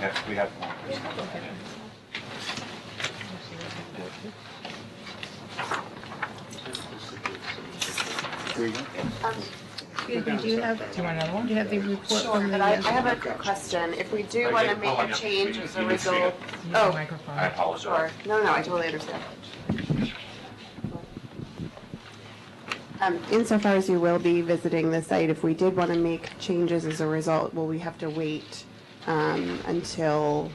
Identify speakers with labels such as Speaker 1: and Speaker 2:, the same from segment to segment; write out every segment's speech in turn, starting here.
Speaker 1: have, we have one.
Speaker 2: Excuse me, do you have, do you want another one? Do you have the report
Speaker 3: Sure,
Speaker 2: from the
Speaker 3: but I, I
Speaker 2: uh,
Speaker 3: have a question. If we do
Speaker 1: Are
Speaker 3: want
Speaker 1: you
Speaker 3: to make
Speaker 1: pulling
Speaker 3: a
Speaker 1: up?
Speaker 3: change
Speaker 1: You-
Speaker 3: as
Speaker 1: you
Speaker 3: a
Speaker 1: need to speak up.
Speaker 3: result,
Speaker 2: you have a
Speaker 3: oh,
Speaker 1: I
Speaker 2: microphone?
Speaker 3: sure.
Speaker 1: apologize.
Speaker 3: No, no, I totally understand. Um, Insofar as you will be visiting the site, if we did want to make changes as a result, will we have to wait um, until,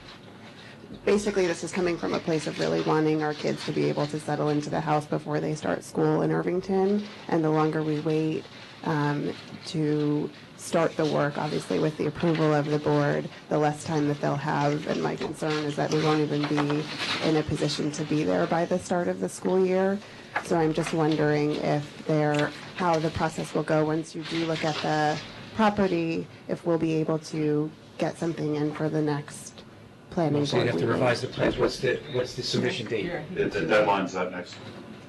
Speaker 3: basically, this is coming from a place of really wanting our kids to be able to settle into the house before they start school in Irvington, and the longer we wait um, to start the work, obviously with the approval of the board, the less time that they'll have, and my concern is that we won't even be in a position to be there by the start of the school year. So I'm just wondering if there, how the process will go once you do look at the property, if we'll be able to get something in for the next planning
Speaker 4: So you
Speaker 3: board
Speaker 4: have to
Speaker 3: meeting.
Speaker 4: revise the plans, what's the, what's the submission date?
Speaker 1: The the deadline's that next,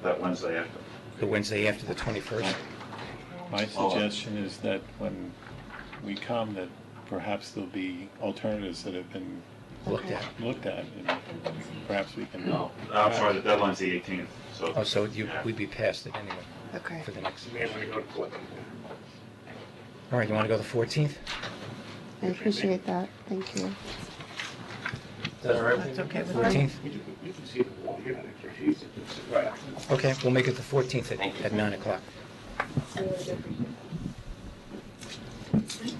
Speaker 1: that Wednesday after.
Speaker 4: The Wednesday after the 21st?
Speaker 5: My
Speaker 1: Oh.
Speaker 5: suggestion is that when we come, that perhaps there'll be alternatives that have been
Speaker 4: Looked at.
Speaker 5: looked at, and perhaps we can.
Speaker 1: No, I'm sorry, the deadline's the 18th, so.
Speaker 4: Oh, so you,
Speaker 1: Yeah.
Speaker 4: we'd be past it anyway
Speaker 3: Okay.
Speaker 4: for the next. All right, you want to go the 14th?
Speaker 3: I appreciate that. Thank you.
Speaker 2: That's okay with me.
Speaker 4: 14th? Okay, we'll make it the 14th at, at 9 o'clock.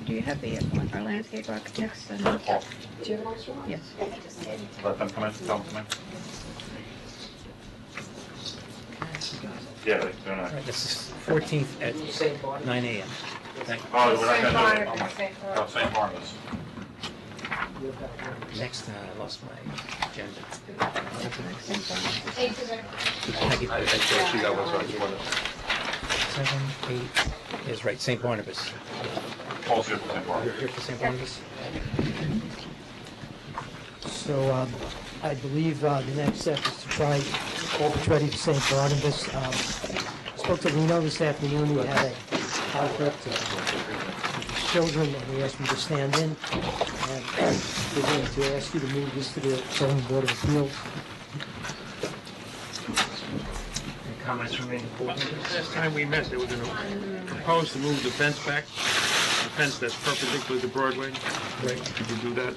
Speaker 2: Do you have the, uh, our landscape architects? and-
Speaker 1: Oh,
Speaker 2: Yes.
Speaker 1: Let them come in, tell them to come in. Yeah, they- they're
Speaker 4: All
Speaker 1: not.
Speaker 4: right, this is 14th at 9 AM. Thank-
Speaker 1: Oh, we're not gonna do it. Oh, St. Barnabas.
Speaker 4: Next, uh, I lost my agenda.
Speaker 6: Thank you very much.
Speaker 4: I get- Seven, eight, is right, St. Barnabas.
Speaker 1: Paul's here for St.
Speaker 4: You're
Speaker 1: Barnabas.
Speaker 4: here for St. Barnabas?
Speaker 7: So um, I believe uh, the next step is to try Corpus Ready for St. Barnabas. Um, Spoke to Lino this afternoon, we had a conflict with children, and we asked him to stand in. And We're going to ask you to move this to the zoning board of appeals.
Speaker 4: Any comments from any board members?
Speaker 8: Last time we met, they were going to propose to move the fence back, the fence that's perpendicular to Broadway.
Speaker 7: Right.
Speaker 8: Could you do that?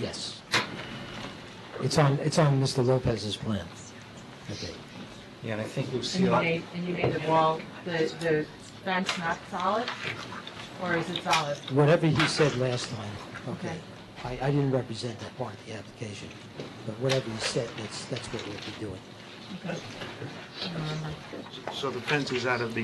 Speaker 7: Yes. It's on, it's on Mr. Lopez's plan. Okay.
Speaker 4: Yeah, and I think
Speaker 9: And you
Speaker 4: Lucille,
Speaker 9: made, and you made the wall, the, the fence not solid, or is it solid?
Speaker 7: Whatever he said last time, okay,
Speaker 9: Okay.
Speaker 7: I, I didn't represent that part of the application, but whatever he said, that's, that's what we'll be doing.
Speaker 8: So the fence is out of the,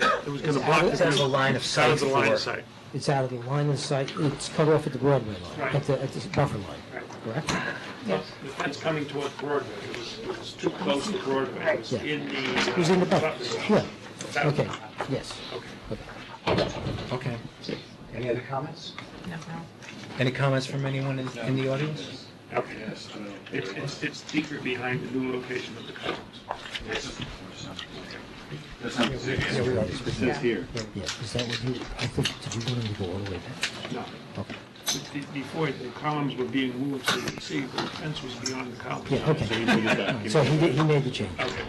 Speaker 8: it was going to
Speaker 7: It's
Speaker 8: block
Speaker 7: out-
Speaker 8: the
Speaker 7: it's
Speaker 4: out of the
Speaker 8: view.
Speaker 4: line of
Speaker 8: It's out of
Speaker 4: sight
Speaker 8: the line
Speaker 4: for-
Speaker 8: of sight.
Speaker 7: It's out of the line of sight, it's cut off at the Broadway line, at
Speaker 8: Right.
Speaker 7: the, at the buffer line,
Speaker 8: Right.
Speaker 7: correct?
Speaker 2: Yes.
Speaker 8: The fence coming towards Broadway, it was, it was too close to Broadway. It was
Speaker 7: Yeah.
Speaker 8: in the. uh,
Speaker 7: Who's in the back?
Speaker 8: buffer zone.
Speaker 7: Yeah,
Speaker 8: That-
Speaker 7: okay, yes.
Speaker 4: okay. Any other comments?
Speaker 2: No, no.
Speaker 4: Any comments from anyone in, in the audience?
Speaker 8: Okay. It's, it's, it's deeper behind the new location of the Cousins.
Speaker 1: There's some-
Speaker 4: Yeah, we already spoke.
Speaker 5: This here.
Speaker 7: Yeah, is that what you, I think, did you want him to go all the way back?
Speaker 8: No.
Speaker 7: Okay.
Speaker 8: Be- Before, the columns were being moved, so you could see, but the fence was beyond the columns.
Speaker 7: Yeah, okay,
Speaker 5: Okay.
Speaker 7: so he did, he made the change,
Speaker 8: Okay.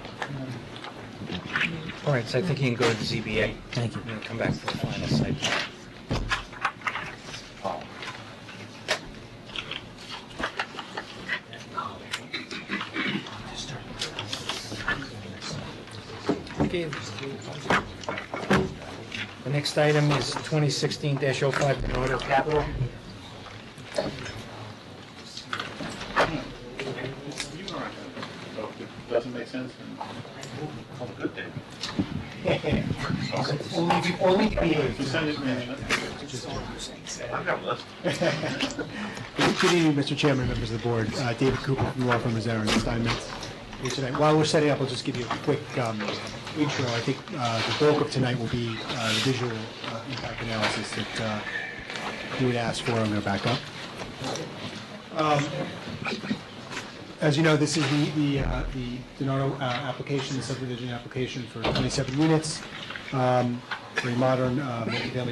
Speaker 4: All right, so I think you can go to the ZBA
Speaker 7: thank you.
Speaker 4: and then come back for the final site. plan.
Speaker 1: Paul.
Speaker 4: The next item is 2016-05, Bernardo Capital.
Speaker 1: So if it Doesn't make sense. then Call it a good day. If you send it to me, I've got a list.
Speaker 10: Good evening, Mr. Chairman, members of the board. Uh, David Cooper from the law firm of Zarin and Steinmetz here tonight. While we're setting up, I'll just give you a quick um, intro. I think uh, the bulk of tonight will be uh, the visual uh, impact analysis that uh, you would ask for. I'm going to back up. Um, As you know, this is the- the uh, the Donato uh, application, the subdivision application for 27 units, um, very modern uh, multifamily